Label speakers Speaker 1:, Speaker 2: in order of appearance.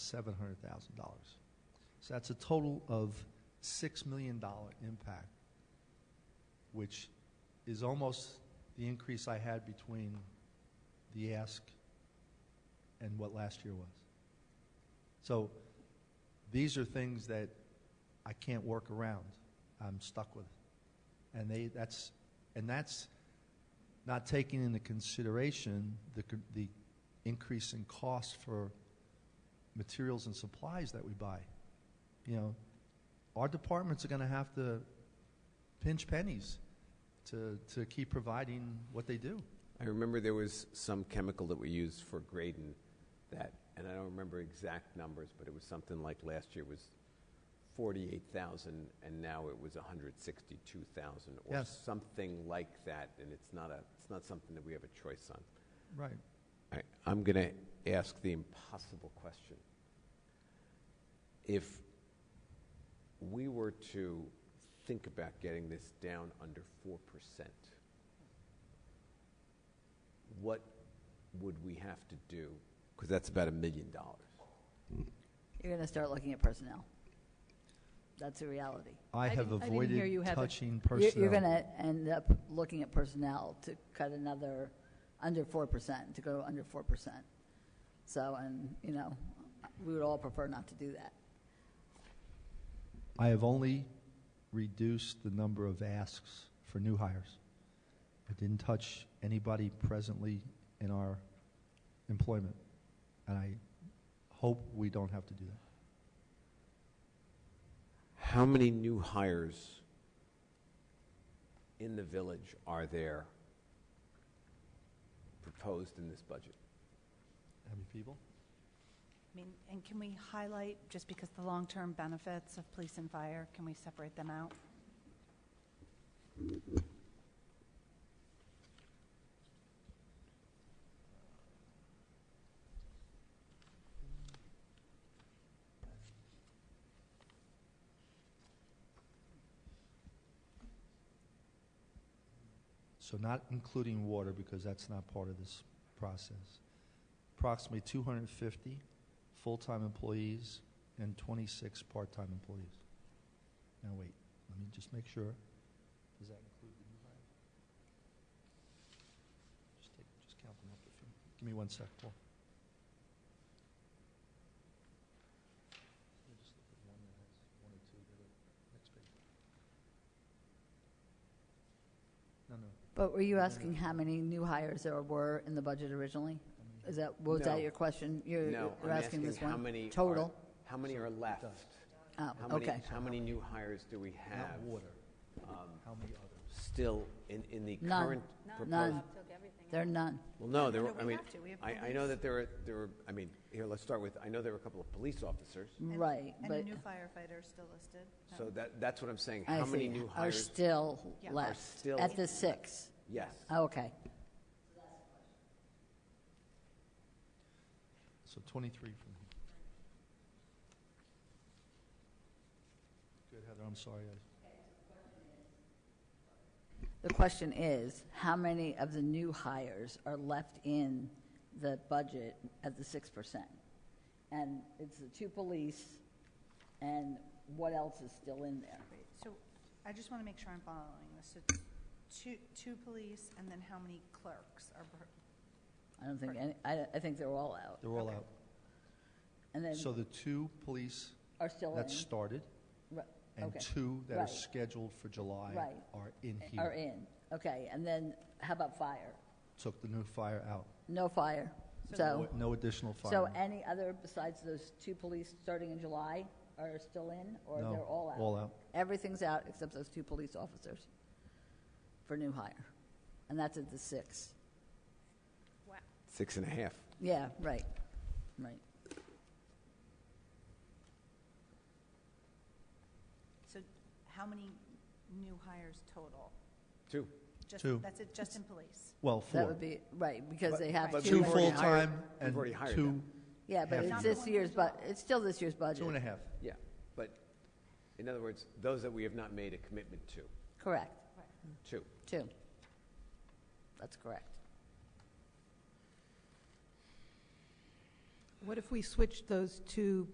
Speaker 1: seven hundred thousand dollars. So that's a total of six million dollar impact, which is almost the increase I had between the ask and what last year was. So these are things that I can't work around. I'm stuck with it. And they, that's, and that's not taking into consideration the, co- the increase in cost for materials and supplies that we buy. You know, our departments are going to have to pinch pennies to, to keep providing what they do.
Speaker 2: I remember there was some chemical that we used for Graydon that, and I don't remember exact numbers, but it was something like last year was 48,000 and now it was 162,000 or
Speaker 1: Yes.
Speaker 2: something like that. And it's not a, it's not something that we have a choice on.
Speaker 1: Right.
Speaker 2: All right, I'm going to ask the impossible question. If we were to think about getting this down under 4%, what would we have to do? Because that's about a million dollars.
Speaker 3: You're going to start looking at personnel. That's a reality.
Speaker 1: I,
Speaker 4: I
Speaker 1: have
Speaker 4: didn't- I didn't hear you
Speaker 1: avoided
Speaker 4: have a-
Speaker 1: touching
Speaker 3: You're-
Speaker 1: personnel.
Speaker 3: You're going to end up looking at personnel to cut another, under 4%, to go under 4%. So, and, you know, we would all prefer not to do that.
Speaker 1: I have only reduced the number of asks for new hires. I didn't touch anybody presently in our employment, and I hope we don't have to do that.
Speaker 2: How many new hires in the village are there proposed in this budget?
Speaker 1: How many people?
Speaker 4: I mean, and can we highlight, just because the long-term benefits of police and fire, can we separate them out?
Speaker 1: So not including water, because that's not part of this process. Approximately 250 full-time employees and 26 part-time employees. Now, wait, let me just make sure. Does that include the new hire? Just take, just count them up if you, give me one sec, Paul. Let me just look at one that has one or two that are next page. No, no,
Speaker 3: But were you asking how many new hires there were in the budget originally?
Speaker 1: how many?
Speaker 3: Is that, was
Speaker 2: No.
Speaker 3: that your question? You're
Speaker 2: No, I'm
Speaker 3: you're asking
Speaker 2: asking
Speaker 3: this
Speaker 2: how
Speaker 3: one?
Speaker 2: many are-
Speaker 3: Total?
Speaker 2: How many are left?
Speaker 3: Oh,
Speaker 2: How many,
Speaker 3: okay.
Speaker 2: how many new hires do we have
Speaker 1: Not water.
Speaker 2: um,
Speaker 1: How many others?
Speaker 2: still in, in the
Speaker 3: None.
Speaker 2: current proposed?
Speaker 3: None. There are none.
Speaker 2: Well, no, there,
Speaker 4: No,
Speaker 2: were-
Speaker 4: no,
Speaker 2: I
Speaker 4: we
Speaker 2: mean,
Speaker 4: have to. We have
Speaker 2: I, I know that there are, there were, I mean, here, let's start with, I know there were a couple of police officers,
Speaker 4: And-
Speaker 3: Right,
Speaker 4: And a
Speaker 3: but
Speaker 4: new firefighter is still listed. Um, No.
Speaker 2: so that, that's what I'm saying.
Speaker 3: I
Speaker 2: How many
Speaker 3: see.
Speaker 2: new
Speaker 3: Are
Speaker 2: hires?
Speaker 3: still Oh.
Speaker 4: Yeah. Are
Speaker 3: left
Speaker 2: still-
Speaker 3: at the six?
Speaker 2: Yes.
Speaker 3: Okay.
Speaker 1: So 23 from here. Good, Heather, I'm sorry. I-
Speaker 3: The question is, how many of the new hires are left in the budget at the six percent? And it's the two police, and what else is still in there?
Speaker 4: Wait, So I just want to make sure I'm following this. So two, two police, and then how many clerks are, per-
Speaker 3: I don't think, any- I, I think they're all out,
Speaker 1: They're all out.
Speaker 3: and then
Speaker 1: So the two police
Speaker 3: are still
Speaker 1: that
Speaker 3: in,
Speaker 1: started
Speaker 3: Ri-
Speaker 1: and
Speaker 3: Okay.
Speaker 1: two that are
Speaker 3: Right.
Speaker 1: scheduled for July
Speaker 3: Right.
Speaker 1: are in here.
Speaker 3: are in, okay, and then how about fire?
Speaker 1: Took the new fire out.
Speaker 3: No fire,
Speaker 1: No-
Speaker 3: so,
Speaker 1: No additional
Speaker 3: so
Speaker 1: fire.
Speaker 3: any other besides those two police starting in July are still in, or they're
Speaker 1: No,
Speaker 3: all out?
Speaker 1: all out.
Speaker 3: Everything's out except those two police officers for new hire. And that's at the six.
Speaker 2: Six and a half.
Speaker 3: Yeah, right, right.
Speaker 4: so how many new hires total?
Speaker 2: Two.
Speaker 4: Just-
Speaker 1: Two.
Speaker 4: That's it, just in police?
Speaker 1: Well,
Speaker 3: That
Speaker 1: four.
Speaker 3: would be, right, because they have
Speaker 2: But
Speaker 3: two.
Speaker 1: Two
Speaker 2: we've already
Speaker 3: right now.
Speaker 2: hired-
Speaker 1: full-time
Speaker 2: we've
Speaker 1: and
Speaker 2: already hired
Speaker 1: two,
Speaker 2: them.
Speaker 3: Yeah, but
Speaker 1: half
Speaker 3: it's
Speaker 1: now.
Speaker 3: this year's, bu, it's still this year's budget.
Speaker 1: two and a half.
Speaker 2: Yeah, but in other words, those that we have not made a commitment to,
Speaker 3: Correct,
Speaker 2: two.
Speaker 3: two. That's correct.
Speaker 5: What if we switched those two